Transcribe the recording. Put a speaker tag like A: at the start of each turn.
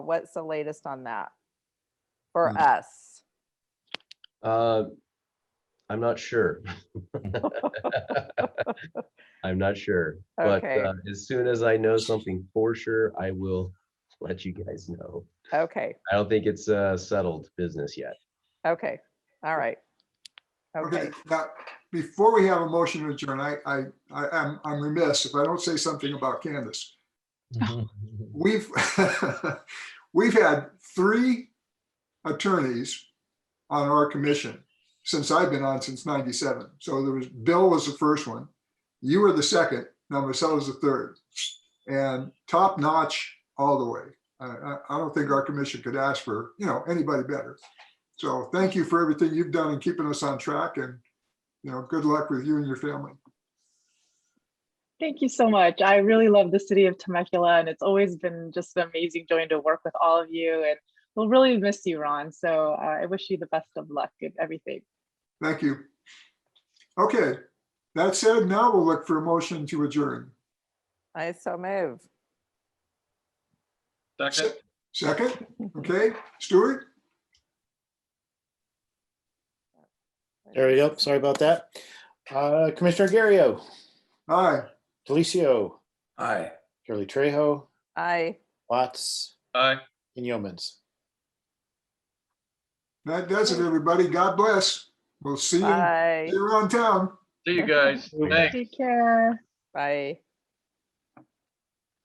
A: What's the latest on that? For
B: Mm.
A: us?
C: Uh, I'm not sure. I'm not sure, but
A: Okay.
C: uh, as soon as I know something for sure, I will let you guys know.
A: Okay,
C: I don't think it's uh, settled business yet.
A: okay, all right. Okay,
D: Okay, now, before we have a motion to adjourn, I, I, I am, I'm remiss if I don't say something about Candace. We've, we've had three attorneys on our commission since I've been on since ninety-seven. So there was, Bill was the first one, you were the second, now Marcella's the third. And top notch all the way. I, I, I don't think our commission could ask for, you know, anybody better. So thank you for everything you've done in keeping us on track and, you know, good luck with you and your family.
E: Thank you so much. I really love the city of Temecula, and it's always been just an amazing joy to work with all of you. And we'll really miss you, Ron. So uh, I wish you the best of luck in everything.
D: Thank you. Okay, that said, now we'll look for a motion to adjourn.
A: I so move.
F: Second,
D: Second, okay, Stuart?
B: There we go. Sorry about that. Uh, Commissioner Garrio,
D: Aye,
B: Delicio,
F: aye.
B: Shirley Trejo,
A: I,
B: Watts,
F: Aye.
B: and Yeomans.
D: that does it, everybody. God bless. We'll see you, see
A: bye,
D: you around town.
F: See you guys. Thanks.
E: Take care.
A: bye.